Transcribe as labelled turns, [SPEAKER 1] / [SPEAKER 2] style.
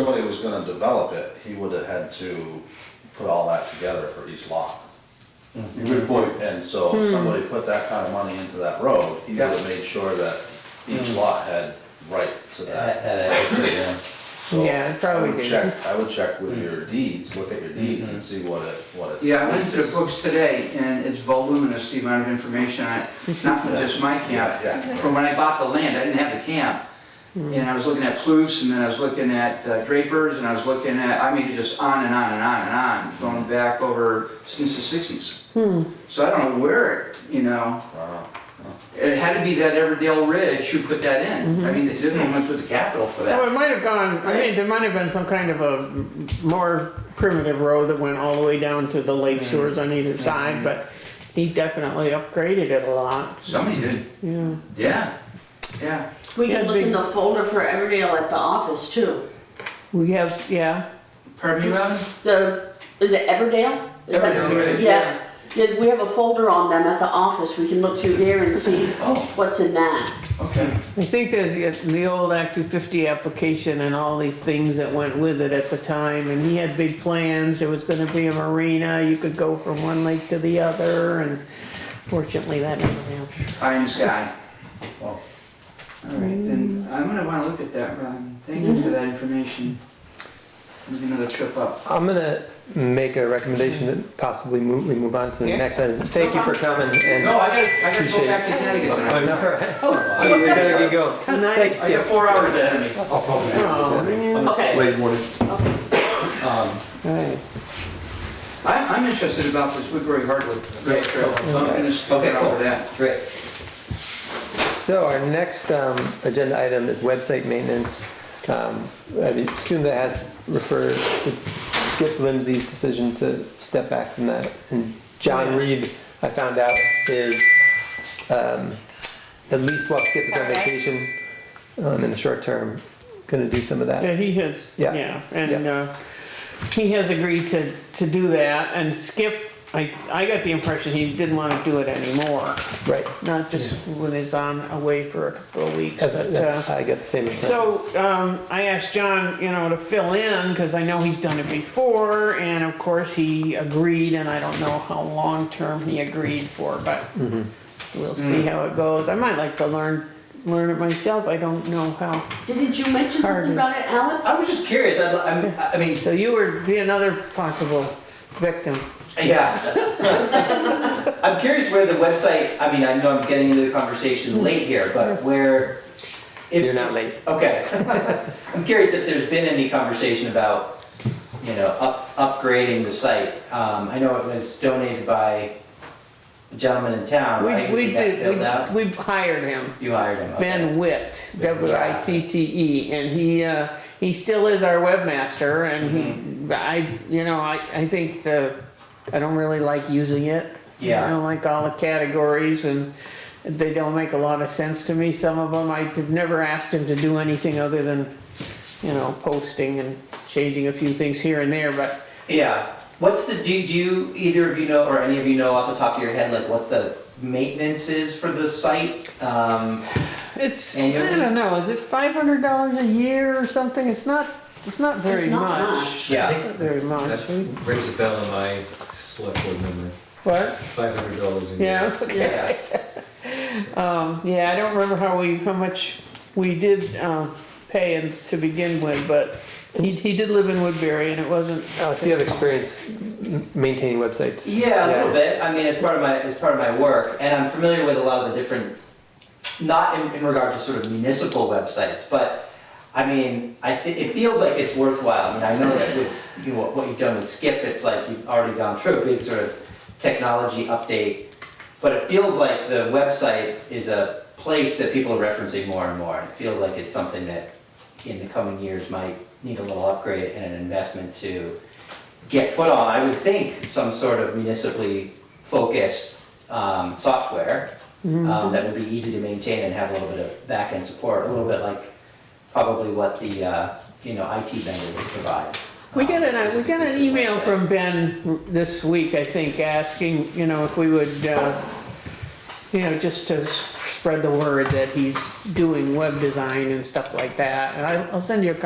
[SPEAKER 1] gonna develop it, he would have had to put all that together for each lot.
[SPEAKER 2] Good point.
[SPEAKER 1] And so
[SPEAKER 3] Hmm.
[SPEAKER 1] if somebody put that kind of money into that road, he would have made sure that each
[SPEAKER 2] Hmm.
[SPEAKER 1] lot had right to that.
[SPEAKER 4] Uh,
[SPEAKER 1] So
[SPEAKER 3] Yeah, it
[SPEAKER 1] I
[SPEAKER 3] probably
[SPEAKER 1] would
[SPEAKER 3] did.
[SPEAKER 1] check, I would check with your deeds, look at your deeds and see what it, what it's.
[SPEAKER 2] Hmm. Yeah, I went into the books today, and it's voluminous, the amount of information, I- not from just my
[SPEAKER 1] Yeah,
[SPEAKER 2] camp.
[SPEAKER 1] yeah.
[SPEAKER 2] From when I bought the land, I didn't have the camp, and I was looking at Plouffe, and then I was looking at uh, Drapers, and I was looking at, I mean, just on and on and on and on,
[SPEAKER 1] Mm-hmm.
[SPEAKER 2] going back over since the sixties. So I don't know where, it, you know,
[SPEAKER 1] Wow.
[SPEAKER 2] it had to be that Everdale Ridge who put that in. I mean, they didn't know much with the capital for
[SPEAKER 3] Oh,
[SPEAKER 2] that.
[SPEAKER 3] it might have gone, I mean, there might have been some kind of a more primitive road that went all the way down to the lake
[SPEAKER 1] Mm-hmm.
[SPEAKER 3] shores on either side, but he definitely upgraded it a lot.
[SPEAKER 2] Somebody did,
[SPEAKER 3] Yeah.
[SPEAKER 2] yeah, yeah.
[SPEAKER 5] We
[SPEAKER 3] Yeah,
[SPEAKER 5] can look in
[SPEAKER 3] big-
[SPEAKER 5] the folder for Everdale at the office too.
[SPEAKER 3] We have, yeah.
[SPEAKER 2] Pardon me, Robin?
[SPEAKER 5] The, is it Everdale? Is that-
[SPEAKER 2] Everdale Ridge,
[SPEAKER 5] Yeah, Yeah, we have a folder on them at the office, we can look through there and see what's in that.
[SPEAKER 2] Okay.
[SPEAKER 3] I think there's the- the old Act 250 application and all the things that went with it at the time, and he had big plans, there was gonna be a marina, you could go from one lake to the other, and fortunately, that didn't happen.
[SPEAKER 2] Pie in the sky. All right, then I'm gonna wanna look at that, Ron. Thank you for that information. Maybe another trip up.
[SPEAKER 6] I'm gonna make a recommendation that possibly move, we move on to the
[SPEAKER 3] Yeah.
[SPEAKER 6] next item. Thank you for coming and.
[SPEAKER 2] No, I gotta, I gotta go
[SPEAKER 6] Appreciate
[SPEAKER 2] back to Connecticut tonight.
[SPEAKER 6] So we better get going.
[SPEAKER 3] Tonight-
[SPEAKER 6] Thanks,
[SPEAKER 2] I got
[SPEAKER 6] Skip.
[SPEAKER 2] four hours ahead of me.
[SPEAKER 3] Oh, man.
[SPEAKER 5] Okay,
[SPEAKER 7] Late morning.
[SPEAKER 5] okay.
[SPEAKER 3] Right.
[SPEAKER 2] I'm, I'm interested about this Woodbury Hardwood Trail, so I'm gonna stick
[SPEAKER 6] Okay,
[SPEAKER 2] around
[SPEAKER 6] cool.
[SPEAKER 2] for that.
[SPEAKER 6] Great. So our next um, agenda item is website maintenance. Um, I assume that has refers to Skip Lindsey's decision to step back from that. And John Reed, I found out, is um, at least while Skip is on
[SPEAKER 5] Okay.
[SPEAKER 6] vacation um, in the short term, going to do some of
[SPEAKER 3] Yeah,
[SPEAKER 6] that.
[SPEAKER 3] he has,
[SPEAKER 6] Uh, Yeah.
[SPEAKER 3] yeah, and, uh, he has agreed to, to do that, and Skip, I, I got the impression he didn't wanna do it anymore,
[SPEAKER 6] Right.
[SPEAKER 3] not just when he's on, away for a couple of weeks,
[SPEAKER 6] As I,
[SPEAKER 3] but, uh,
[SPEAKER 6] I get the same impression.
[SPEAKER 3] So, um, I asked John, you know, to fill in, cause I know he's done it before, and of course, he agreed, and I don't know how long-term he agreed for, but we'll see how it goes, I might like to learn, learn it myself, I don't know how.
[SPEAKER 5] Didn't you mention
[SPEAKER 3] Hardly.
[SPEAKER 5] something about it, Alex?
[SPEAKER 4] I was just curious, I, I, I mean,
[SPEAKER 3] So you would be another possible victim.
[SPEAKER 4] yeah. I'm curious where the website, I mean, I know I'm getting into the
[SPEAKER 3] Mm-hmm.
[SPEAKER 4] conversation late here, but where. if-
[SPEAKER 6] You're not late.
[SPEAKER 4] Okay. I'm curious if there's been any conversation about, you know, up, upgrading the site. Um, I know it was donated by a gentleman in town,
[SPEAKER 3] We,
[SPEAKER 4] right?
[SPEAKER 3] we
[SPEAKER 4] got
[SPEAKER 3] did,
[SPEAKER 4] Built out?
[SPEAKER 3] we, we hired him,
[SPEAKER 4] You hired him, okay.
[SPEAKER 3] Ben Witt, W I T T E, and he, uh, he still is our webmaster and he, I, you know, I, I think the, I don't really like using it.
[SPEAKER 4] Yeah.
[SPEAKER 3] I don't like all the categories and they don't make a lot of sense to me, some of them, I've never asked him to do anything other than, you know, posting and changing a few things here and there, but
[SPEAKER 4] Yeah. What's the, do, do you, either of you know, or any of you know off the top of your head, like what the maintenance is for the site? Um,
[SPEAKER 3] It's, I
[SPEAKER 4] Annually?
[SPEAKER 3] don't know, is it five hundred dollars a year or something? It's not, it's not very
[SPEAKER 5] It's not
[SPEAKER 3] much.
[SPEAKER 5] much.
[SPEAKER 4] yeah.
[SPEAKER 3] Not Very much.
[SPEAKER 7] That rings a bell in my select board memory,
[SPEAKER 3] What?
[SPEAKER 7] five hundred dollars a year.
[SPEAKER 3] Yeah, okay.
[SPEAKER 4] Yeah.
[SPEAKER 3] Yeah, I don't remember how we, how much we did, um, pay him to begin with, but he, he did live in Woodbury and it wasn't.
[SPEAKER 6] Alex, you have experience m- maintaining websites.
[SPEAKER 4] Yeah, a little bit. I mean, it's part of my it's part of my work, and I'm familiar with a lot of the different, not in, in regard to sort of municipal websites, but I mean, I think it feels like it's worthwhile. I mean, I know that with you know, what, what you've done with Skip, it's like you've already gone through a big sort of technology update, but it feels like the website is a place that people are referencing more and more. It feels like it's something that in the coming years might need a little upgrade and an investment to get put on, I would think, some sort of municipally focused um, software um, that would be easy to maintain and have a little bit of back-end support, a little bit like probably what the, uh, you know, IT vendor would provide.
[SPEAKER 3] We
[SPEAKER 4] um,
[SPEAKER 3] got an, uh, we got an email from Ben this week, I think, asking, you know, if we would, uh, you know, just to s- spread the word that he's doing web design and stuff like that. And I, I'll send you a copy